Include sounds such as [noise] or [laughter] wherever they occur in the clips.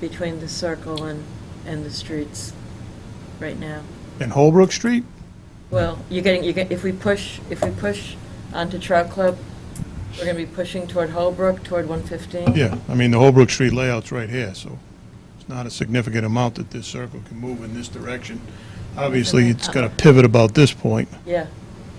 between the circle and, and the streets right now. In Holbrook Street? Well, you're getting, you get, if we push, if we push onto Trout Club, we're gonna be pushing toward Holbrook, toward one fifteen. Yeah, I mean, the Holbrook Street layout's right here, so it's not a significant amount that this circle can move in this direction. Obviously, it's got to pivot about this point, Yeah,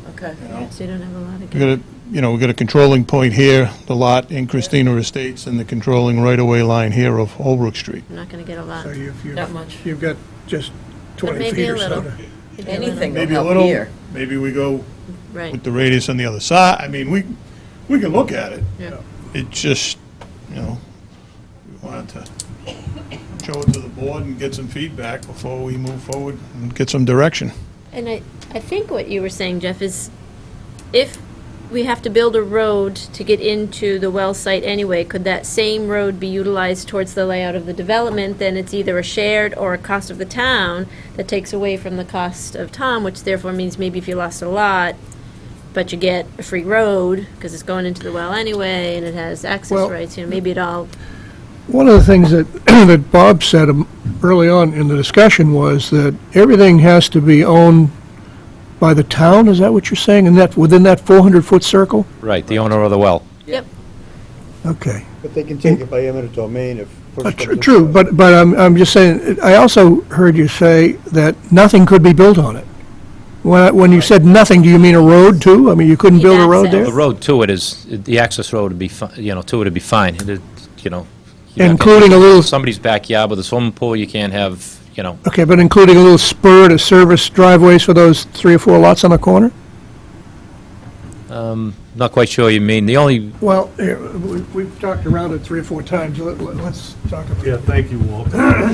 okay. you know? So you don't have a lot of. We got a, you know, we got a controlling point here, the lot in Christina Estates, and the controlling right-of-way line here of Holbrook Street. I'm not going to get a lot. So you've, Not you've, much. you've got just But 20 maybe feet a or so. little. to- Maybe a little. Anything will Maybe a help little, here. maybe we go Right. with the radius on the other side. I mean, we, we can look at it. Yeah. It just, you know, we wanted to show it to the board and get some feedback before we move forward and get some direction. And I, I think what you were saying, Jeff, is if we have to build a road to get into the well site anyway, could that same road be utilized towards the layout of the development? Then it's either a shared or a cost of the town that takes away from the cost of Tom, which therefore means maybe if you lost a lot, but you get a free road, because it's going into the well anyway, and it has access Well- rights, you know, maybe it all, One of the things that, [clears throat] that Bob said um, early on in the discussion was that everything has to be owned by the town, is that what you're saying, in that, within that 400-foot circle? Right, the owner of the well. yep, Okay. But they can take it by eminent domain if. push Uh, comes tr- to True, shove. but, but I'm, I'm just saying, I also heard you say that nothing could be built on it. When, I- when you said nothing, do you mean a road too? I mean, you couldn't Need build a road access. there? The road to it is, the access road would be, fi- you know, to it would be fine, It- it- you know. you're not gonna- Including a little- Somebody's backyard with a swimming pool, you can't have, you know, Okay, but including a little spur to service driveways for those three or four lots on the corner? um, not quite sure what you mean. The only, Well, here, we- we've talked around it three or four times, Let- let- let's talk about Yeah, it. thank you, Walt. Uh,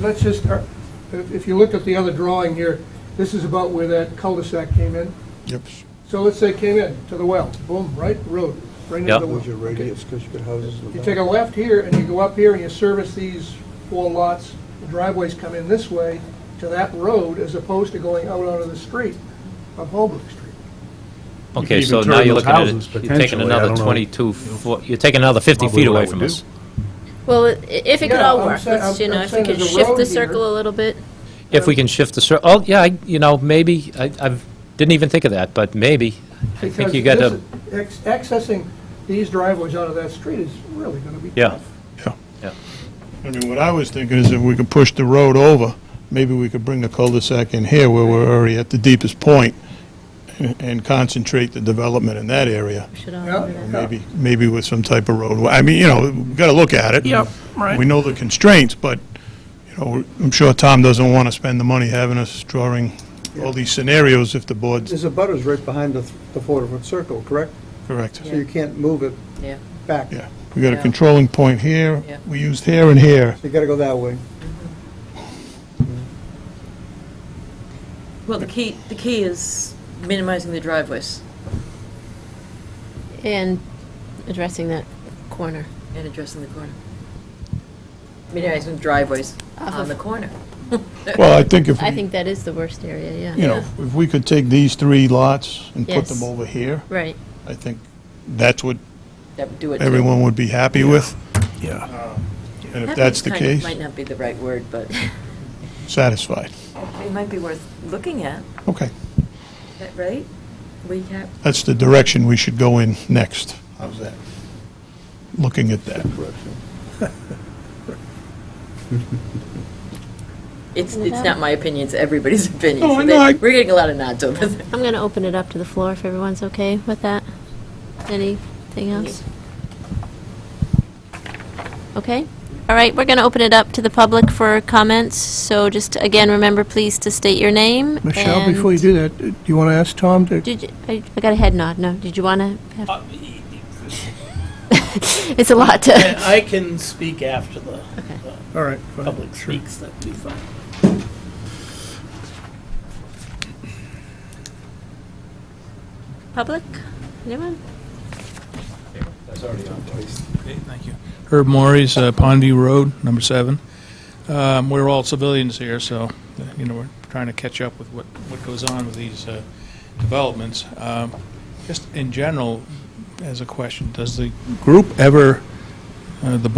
Let's just, uh, if if you look at the other drawing here, this is about where that cul-de-sac came in. Yep. So let's say it came in to the well, boom, right, road, right into Yeah. the well. What's your radius, because you got houses. in the You back. take a left here, and you go up here, and you service these four lots, the driveways come in this way to that road, as opposed to going out onto the street of Holbrook Street. okay, even so turn now you're those looking at houses it, you're taking potentially, I another don't know. 22, foot- you're taking another 50 Probably feet what I away would from do. us. well, i- if it could Yeah, all I'm work, saying- let's, you I'm- know, I'm if we saying could there's a shift road the here. circle a little bit. If we can shift the, cir- oh, yeah, I- you know, maybe, I I didn't even think of that, but maybe. I think you got Because to, this- ex- Accessing these driveways out of that street is really gonna be yeah, tough. I mean, what I was thinking is if we could push the road over, maybe we could bring the cul-de-sac in here where we're already at the deepest point and- and concentrate the development in that area, We should all Yeah. do that. maybe, maybe with some type of roadway. I mean, you know, we've got to look at it. Yep, right. We know the constraints, but, you know, I'm sure Tom doesn't want to spend the money having us drawing all these scenarios if the board's There's a butters right behind the, th- the four-foot circle, correct? correct. So you can't move it Yeah. back. Yeah, we got a Yeah. controlling point here, Yeah. we used here and here. You gotta go that way. Well, the key, the key is minimizing the driveways And addressing that corner. and addressing the corner. Minimizing driveways Off on of- the corner. Well, I think if I Mm-hmm. we, think that is the worst area, yeah. you know, if we could take these three lots and put Yes. them over here, Right. I think that's what [laughs] That would do it. too. everyone would be happy with. Yeah. And if Happy that's the kind of case, Might not be the right word, but satisfied. it might be worth looking at, Okay, that right? We have, that's the direction we should go in next. How's that? Looking at that. it's, it's not my opinion, it's everybody's [laughs] opinion. No, so Oh, I they- know, I- We're getting a lot of nods over there. I'm going to open it up to the floor if everyone's okay with that. Anything else? Okay. All right, we're going to open it up to the public for comments. So just, again, remember, please to state your name. Michelle, and- before you do that, do you wanna ask Tom to? Did you, I I got a head nod, no. Did you want to? [laughs] It's a lot to, And I can speak after the All right. go ahead. public speaks, that'd be fine. public? Anyone? Herb Morris, uh, Pondview Road, number seven. Um, We're all civilians here, so, uh, you know, we're trying to catch up with what, what goes on with these uh, developments. Um, Just in general, as a question, does the group ever, uh, the board